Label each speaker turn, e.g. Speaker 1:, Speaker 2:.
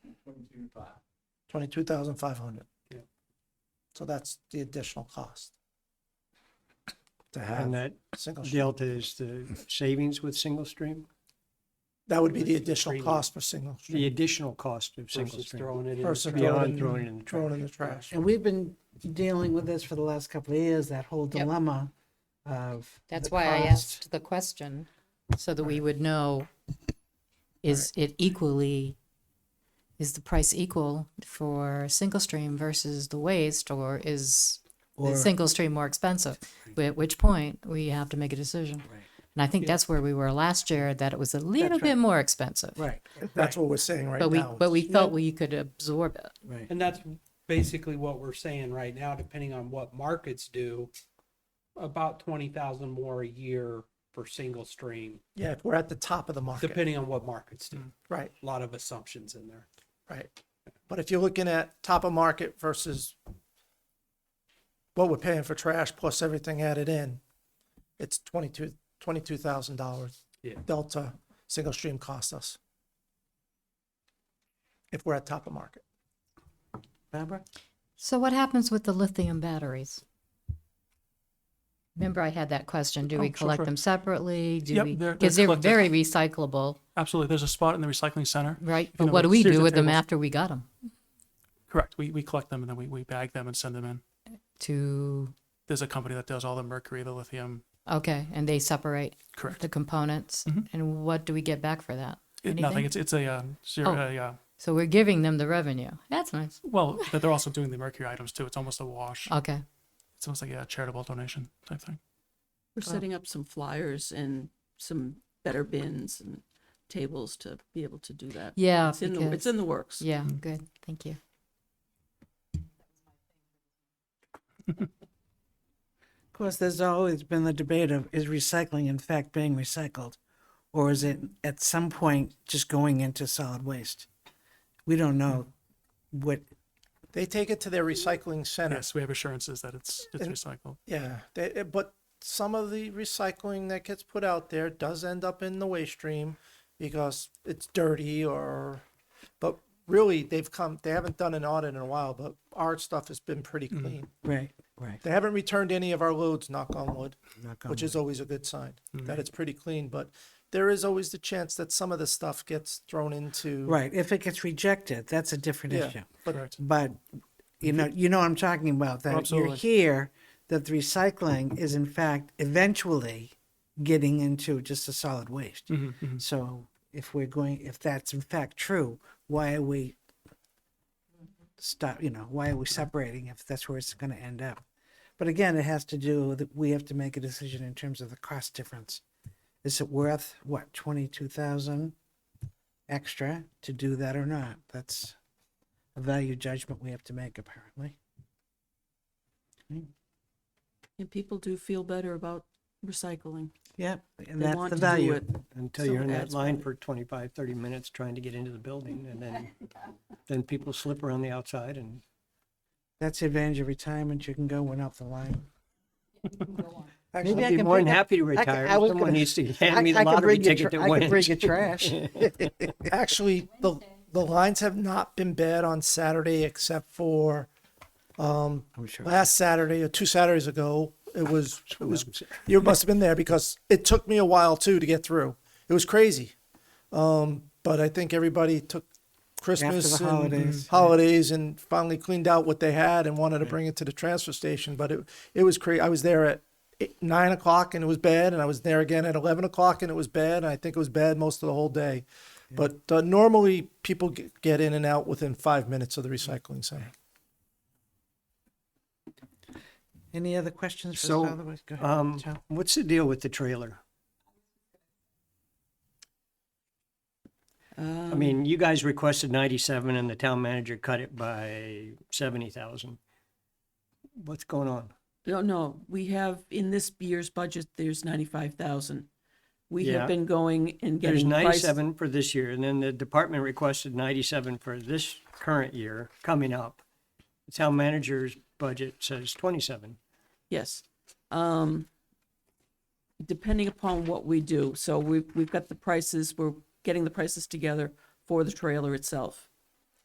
Speaker 1: five.
Speaker 2: twenty-two thousand five hundred.
Speaker 1: Yeah.
Speaker 2: So that's the additional cost. To
Speaker 1: And
Speaker 2: have
Speaker 1: that
Speaker 2: single, stream.
Speaker 1: delta is the savings with single stream,
Speaker 2: that would be the additional
Speaker 1: Premium.
Speaker 2: cost for single
Speaker 1: the
Speaker 2: stream
Speaker 1: additional cost of single
Speaker 3: Versus
Speaker 1: stream.
Speaker 3: throwing it in. the
Speaker 2: versus
Speaker 3: trash.
Speaker 1: Beyond
Speaker 2: throwing,
Speaker 1: throwing it in the
Speaker 2: throwing
Speaker 1: trash.
Speaker 2: in the trash.
Speaker 4: And we've been dealing with this for the last couple of years, that whole
Speaker 5: Yep.
Speaker 4: dilemma of.
Speaker 5: That's
Speaker 4: the
Speaker 5: why I
Speaker 4: cost.
Speaker 5: asked the question, so that we would know, is it equally, is the price equal for single stream versus the waste, or is the
Speaker 4: Or-
Speaker 5: single stream more expensive? But At which point, we have to make a decision. And I think that's where we were last year, that it was a little
Speaker 4: right.
Speaker 5: bit more expensive.
Speaker 4: Right,
Speaker 2: That's what we're saying right now.
Speaker 5: But we, but we
Speaker 3: Yeah.
Speaker 5: felt we could absorb it.
Speaker 4: right.
Speaker 3: And that's basically what we're saying right now, depending on what markets do, about twenty thousand more a year for single stream,
Speaker 2: Yeah, if we're at the top of the market,
Speaker 3: depending on what markets do.
Speaker 2: right,
Speaker 3: A lot of assumptions in there.
Speaker 2: right. But if you're looking at top of market versus what we're paying for trash plus everything added in, it's twenty-two, twenty-two thousand dollars
Speaker 3: Yeah.
Speaker 2: delta single stream cost us. If we're at top of market.
Speaker 4: Barbara?
Speaker 5: So what happens with the lithium batteries? Remember I had that question, do we
Speaker 6: Oh, sure,
Speaker 5: collect
Speaker 6: sure.
Speaker 5: them separately? Do
Speaker 6: Yep,
Speaker 5: we,
Speaker 6: they're-
Speaker 5: because
Speaker 6: they're
Speaker 5: they're
Speaker 6: collected.
Speaker 5: very recyclable,
Speaker 6: Absolutely. There's a spot in the recycling center.
Speaker 5: right?
Speaker 6: You
Speaker 5: But
Speaker 6: know,
Speaker 5: what do we
Speaker 6: series
Speaker 5: do
Speaker 6: of
Speaker 5: with them
Speaker 6: tables.
Speaker 5: after we got them?
Speaker 6: Correct. We, we collect them and then we, we bag them and send them in.
Speaker 5: To,
Speaker 6: There's a company that does all the mercury, the lithium.
Speaker 5: okay, and they separate
Speaker 6: Correct. Mm-hmm.
Speaker 5: the components? And what do we get back for that?
Speaker 6: It,
Speaker 5: Anything?
Speaker 6: nothing. It's it's a uh, zero.
Speaker 5: Oh.
Speaker 6: a, uh,
Speaker 5: So we're giving them the revenue. That's nice.
Speaker 6: well, but they're also doing the mercury items too. It's almost a wash.
Speaker 5: Okay.
Speaker 6: It's almost like a charitable donation type thing.
Speaker 7: We're setting up some flyers and some better bins and tables to be able to do that.
Speaker 5: Yeah,
Speaker 7: It's in, the-
Speaker 5: because-
Speaker 7: it's in the works.
Speaker 5: Yeah,
Speaker 6: Mm.
Speaker 5: good. Thank you.
Speaker 4: Of course, there's always been the debate of is recycling in fact being recycled? Or is it at some point just going into solid waste? We don't know
Speaker 3: Hmm.
Speaker 4: what,
Speaker 2: They take it to their recycling center.
Speaker 6: Yes, we have assurances that it's it's
Speaker 2: And-
Speaker 6: recycled.
Speaker 2: Yeah, they, eh, but some of the recycling that gets put out there does end up in the waste stream because it's dirty or, but really they've come, they haven't done an audit in a while, but our stuff has been pretty
Speaker 4: Mm-hmm.
Speaker 2: clean.
Speaker 4: right, right.
Speaker 2: They haven't returned any of our loads, knock on wood,
Speaker 4: knock on
Speaker 2: which is
Speaker 4: wood. Mm-hmm.
Speaker 2: always a good sign that it's pretty clean, but there is always the chance that some of the stuff gets thrown into.
Speaker 4: Right, if it gets rejected, that's a different
Speaker 2: Yeah,
Speaker 4: issue.
Speaker 2: but
Speaker 6: Correct.
Speaker 4: But, you know, you know what I'm talking about, that you're
Speaker 6: Absolutely.
Speaker 4: here, that the recycling is in fact eventually getting into just a solid waste.
Speaker 5: Mm-hmm,
Speaker 4: So if we're going, if that's in fact true, why are we stop, you know, why are we separating if that's where it's gonna end up? But again, it has to do with, we have to make a decision in terms of the cost difference. Is it worth, what, twenty-two thousand extra to do that or not? That's a value judgment we have to make apparently.
Speaker 7: And people do feel better about recycling.
Speaker 4: Yep, and
Speaker 7: They
Speaker 4: that's
Speaker 7: want
Speaker 4: the
Speaker 7: to do
Speaker 4: value.
Speaker 7: it.
Speaker 3: Until
Speaker 7: So
Speaker 3: you're in that
Speaker 7: that's
Speaker 3: line
Speaker 7: why-
Speaker 3: for 25, 30 minutes trying to get into the building and then, then people slip around the outside and
Speaker 4: That's the advantage of retirement. You can go one up the line.
Speaker 3: I'd be more than happy to retire. if Someone needs to hand me the lottery ticket that
Speaker 4: I could bring
Speaker 3: wins.
Speaker 4: you trash.
Speaker 2: Actually, the, the lines have not been bad on Saturday except for
Speaker 4: I'm sure.
Speaker 2: last Saturday or two Saturdays ago. It was it was you must have been there because it took me a while too to get through. It was crazy, um, but I think everybody took Christmas
Speaker 4: After the holidays.
Speaker 2: and holidays and finally cleaned out what they had and wanted to bring it to the transfer station. But it it was crazy. I was there at eight, nine o'clock and it was bad, and I was there again at eleven o'clock and it was bad, and I think it was bad most of the whole day. But uh, normally people get, get in and out within five minutes of the recycling center.
Speaker 4: Any other questions for
Speaker 3: So,
Speaker 4: Solid Waste? Go ahead,
Speaker 3: Um,
Speaker 4: Tom.
Speaker 3: what's the deal with the trailer?
Speaker 7: Um,
Speaker 4: Um,
Speaker 3: I mean, you guys requested ninety-seven and the town manager cut it by seventy thousand. What's going on?
Speaker 7: No, no, we have, in this year's budget, there's ninety-five thousand. We
Speaker 3: Yeah.
Speaker 7: have been going and
Speaker 3: There's
Speaker 7: getting price.
Speaker 3: ninety-seven for this year, and then the department requested ninety-seven for this current year coming up. The town manager's budget says twenty-seven.
Speaker 7: Yes. Um, depending upon what we do, so we've, we've got the prices, we're getting the prices together for the trailer itself.